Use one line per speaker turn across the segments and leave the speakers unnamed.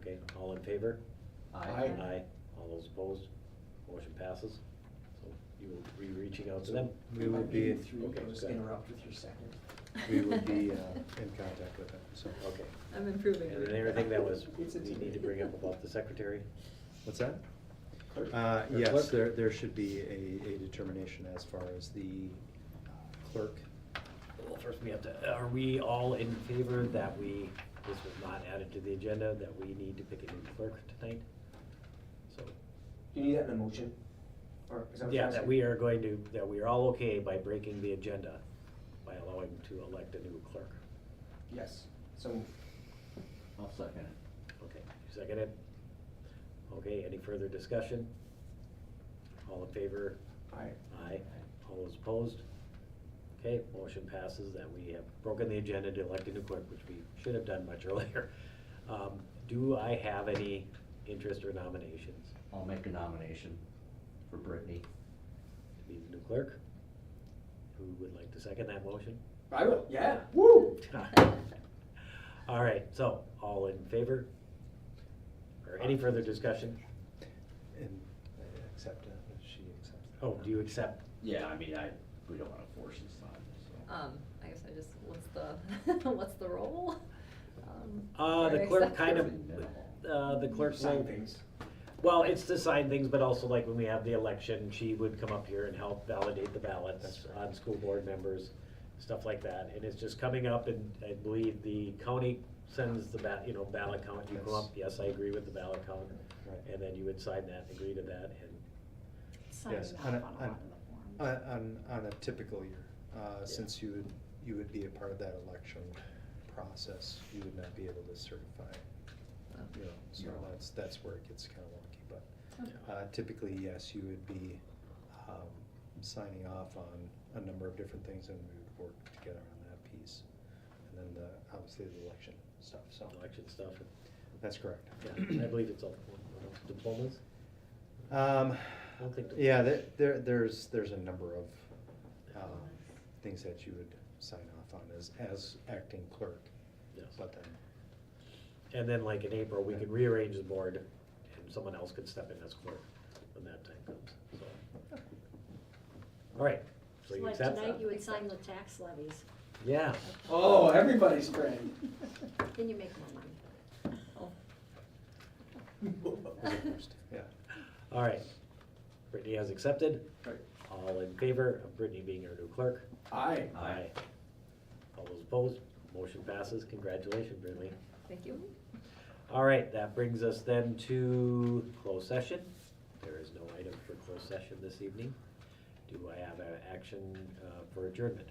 Okay, all in favor?
Aye.
Aye. All those opposed? Motion passes. So you will be reaching out to them?
We will be,
Okay,
Just
good.
interrupt with your second.
we will be uh, in contact with them, so.
Okay.
I'm improving.
And then everything that was, we
It's a team.
need to bring up about the secretary?
What's that?
Clerk.
Uh,
Or
Yes,
clerk?
there, there should be a, a determination as far as the uh, clerk.
Well, first we have to, are we all in favor that we, this was not added to the agenda, that we need to pick a new clerk tonight? So,
Do you need that in a motion? Or is that what you're
yeah, that
asking?
we are going to, that we are all okay by breaking the agenda by allowing to elect a new clerk.
Yes, so moved.
I'll second it.
Okay, you second it? Okay, any further discussion? All in favor?
Aye.
Aye. All those opposed? Okay, motion passes that we have broken the agenda to elect a new clerk, which we should have done much earlier. Um, Do I have any interest or nominations
I'll make a nomination for Brittany.
to be the new clerk? Who would like to second that motion?
I will, yeah, woo!
All right, so, all in favor? Or any further discussion?
And I accept, uh, she accepts.
Oh, do you accept?
Yeah, I mean, I, we don't wanna force this on so.
Um, I guess I just, what's the, what's the role? Um,
Uh, the
or
clerk
accept-
kind of,
acceptance.
uh, the clerk
Sign
will-
things.
Well, it's to sign things, but also like when we have the election, she would come up here and help validate the ballots
That's right.
on school board members, stuff like that. And it's just coming up and I believe the county sends the ba, you know, ballot count, you come
Yes.
up, yes, I agree with the ballot count.
Right.
And then you would sign that, agree to that and,
Signing
Yes,
off on
on a-
a lot
on-
of the
On,
forms.
on, on a typical year, uh, since you would, you would be a part of that election process, you would not be able to certify, you know, so
No.
that's, that's where it gets kind of wonky, but.
Okay.
Uh, Typically, yes, you would be um, signing off on a number of different things and we would work together on that piece. And then the, obviously the election stuff, so.
election stuff.
That's correct.
Yeah, I believe it's all what else? diplomas.
Um,
I don't think the-
Yeah, there- there, there's, there's a number of
Oh.
um, things that you would sign off on as, as acting clerk.
Yes.
But then,
And then like in April, we could rearrange the board and someone else could step in as clerk when that time comes, so. All right, so
So
you
like
accept?
tonight, you would sign the tax levies,
Yeah,
Oh, everybody's friend.
then you make more money.
Oh. yeah.
all right. Brittany has accepted.
Right.
All in favor of Brittany being our new clerk?
Aye.
Aye.
All those opposed, motion passes. Congratulations, Brittany.
Thank you.
All right, that brings us then to closed session. There is no item for closed session this evening. Do I have an action uh, for adjournment?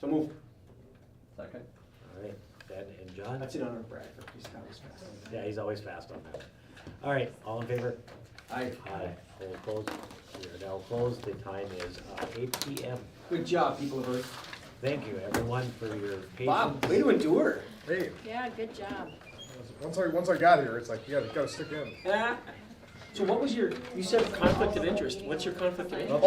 So moved.
Second?
All right, Ben and John?
That's in honor of Bradford, he's not as fast.
Yeah, he's always fast on that. All right, all in favor?
Aye.
All opposed? We are now closed. The time is uh, eight P M.
Good job, people of Earth.
Thank you, everyone, for your patience.
Bob, way to endure.
Hey,
Yeah, good job.
once I once I got here, it's like you gotta gotta stick in.
So what was your, you said conflict of interest, what's your conflict of interest?